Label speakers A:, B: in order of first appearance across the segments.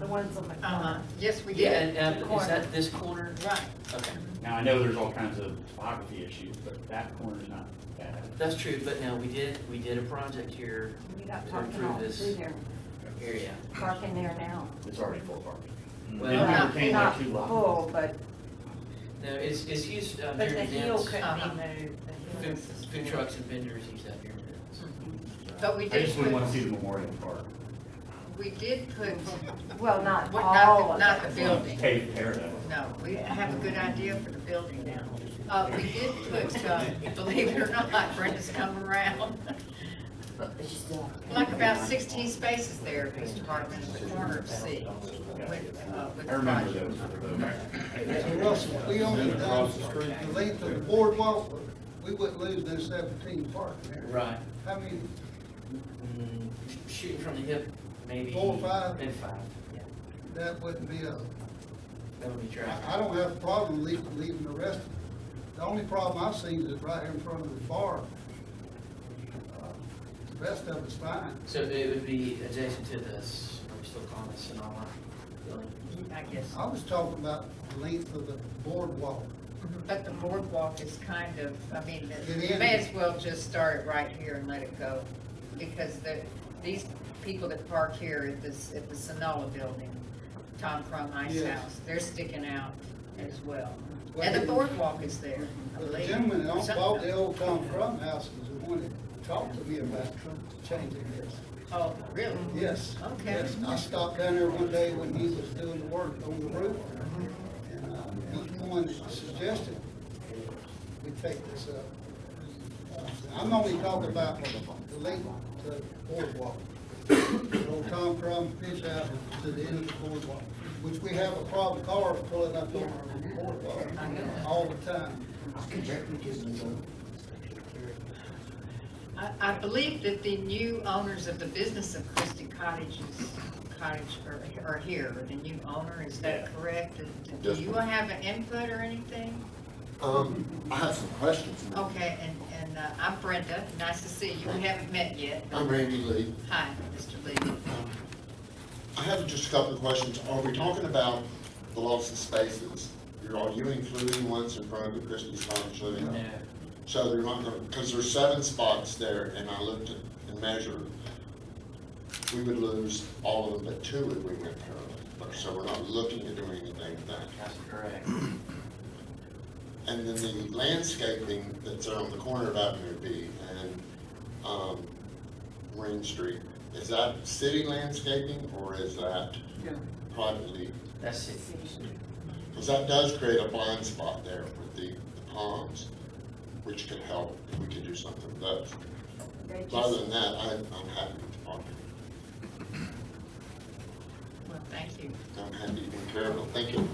A: the ones on the
B: Uh-huh,
A: corner.
B: yes, we
C: Um, Yeah,
B: did.
C: and,
B: The
C: uh, is
B: corner.
C: that this corner?
B: Right,
C: Okay,
D: Now, I know there's all kinds of topography issues, but that corner's not bad.
C: that's true, but no, we did, we did a project here,
A: We got
C: To
A: parking
C: improve
A: all
C: this.
A: through there,
C: area.
A: parking there now.
D: It's already full parking.
C: Well,
D: Then we
A: Not-
D: retained like two
A: Not
D: lots.
A: full, but,
C: No, it's, it's used um,
A: but
C: during
A: the heel
C: events.
A: couldn't
B: Uh-huh.
A: be moved. the heel
C: Food,
A: was just
C: food
A: moved.
C: trucks and vendors use that during events.
B: but we
D: I just
B: did
D: wouldn't want to
B: put,
D: see the Memorial Park.
B: we did put,
A: Well, not
B: what- not,
A: all
B: the-
A: of
B: not the
A: it.
B: building.
D: Paved area.
B: No, we have a good idea for the building now. Uh, we did put, uh, believe it or not, Brenda's come around, like about sixteen spaces there, Mr. Hartman, in the corner of C. with, uh, with
D: I remember
B: the
D: those. were the-
E: Mr. Russell, we own it down the street, the length of the boardwalk, we wouldn't lose no seventeen parking there.
C: Right.
E: How many,
C: Mm, Shooting from the hip, maybe.
E: Four, five?
C: Maybe five, yeah,
E: that wouldn't be a,
C: that would be traffic.
E: I, I don't have a problem leaving, leaving the rest. The only problem I've seen is right in front of the bar. Uh, The rest of it's fine.
C: So it would be adjacent to this, are we still calling this Sonoma building?
B: I guess.
E: I was talking about the length of the boardwalk.
B: But the boardwalk is kind of, I mean,
E: It
B: the-
E: is.
B: may as well just start it right here and let it go. Because the, these people that park here at this, at the Sonola building, Tom Frommeis
E: Yes.
B: house, they're sticking out as well.
E: Well,
B: And the
E: it-
B: boardwalk is there, I
E: The
B: believe.
E: gentleman that
B: Something-
E: bought the old Tom Crum house was the one that talked to me about changing this.
B: Oh, really?
E: Yes.
B: Okay.
E: Yes, I stopped down there one day when he was doing the work on the roof. And uh, he's the one that suggested we take this up. Uh, I'm only talking about the length to the boardwalk. Old Tom Crum fish out to the end of the boardwalk, which we have a problem cars pulling up on our boardwalk all the time.
B: I, I believe that the new owners of the business of Christie Cottages, cottage are, are here, the new owner, is
D: Yeah.
B: that correct? And Do
F: Yes,
B: you
F: ma'am.
B: have an input or anything?
F: Um, I have some questions. ma'am.
B: Okay, and, and uh, I'm Brenda, nice to see you, we haven't met yet. but-
F: I'm Randy Lee.
B: Hi, Mr. Lee.
F: I have just a couple of questions. Are we talking about the loss of spaces? You're- Are you including ones in front of Christie's Cottage Living?
C: No,
F: So they're not gonna, because there's seven spots there, and I looked at and measured. We would lose all of them but two if we went parallel, so we're not looking at doing anything with that.
C: that's correct.
F: And then the landscaping that's on the corner of Avenue B and, um, Marine Street, is that city landscaping or is that privately?
C: That's it.
F: Because that does create a blind spot there with the the palms, which could help if we could do something with those.
A: They
F: Other
A: just,
F: than that, I, I'm happy with the parking.
B: Well, thank you.
F: I'm happy and careful. Thank you.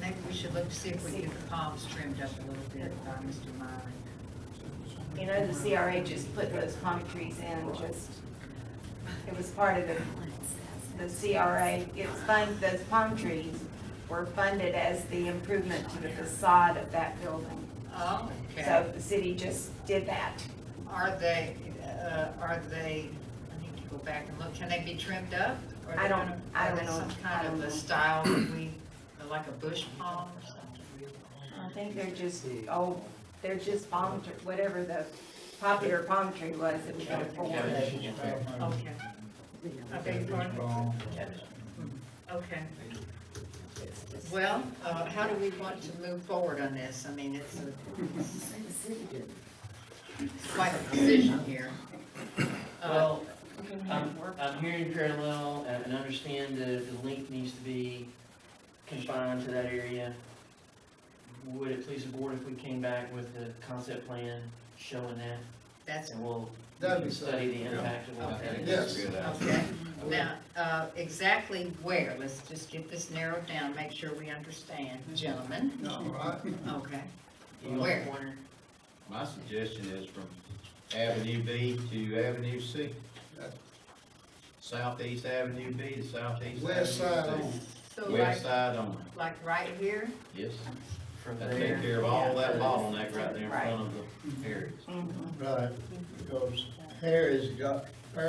B: Maybe we should look to see if we can get the palms trimmed up a little bit by Mr. Myron.
A: you know, the CRA just put those palm trees in, just, it was part of the, the CRA. It's fun, those palm trees were funded as the improvement to the facade of that building.
B: Oh, okay.
A: So the city just did that.
B: Are they, uh, are they, I need to go back and look, can they be trimmed up? Or are
A: I
B: they
A: don't-
B: gonna-
A: I don't know.
B: Are they some
A: I
B: kind
A: don't
B: of
A: know.
B: a style that we, like a bush palm or something?
A: I think they're just, oh, they're just palm, tr- whatever the popular palm tree was that we could afford.
B: Okay. I beg your pardon? Okay. Well, uh, how do we want to move forward on this? I mean, it's a, it's quite a decision here. Uh,
C: Well, I'm, I'm hearing parallel and and understand the, the link needs to be confined to that area. Would it please the board if we came back with the concept plan showing that?
B: That's,
C: And we'll we
E: That'd
C: can
E: be
C: study the
E: safe, yeah.
C: impact of what that is.
E: Yes.
B: okay. Now, uh, exactly where, let's just get this narrowed down, make sure we understand, gentlemen.
E: No, I,
B: Okay,
C: You want
B: Where?
C: a pointer?
G: My suggestion is from Avenue B to Avenue C. Uh, Southeast Avenue B to southeast.
E: west side
G: Avenue
E: on.
G: C.
B: so like,
G: West side on,
B: like right here?
G: yes.
C: From
G: That take
C: there.
G: care of
C: yeah,
G: all that
C: for-
A: Mm-hmm.
G: bottleneck right there in front of the areas.
E: Right, because Harry's got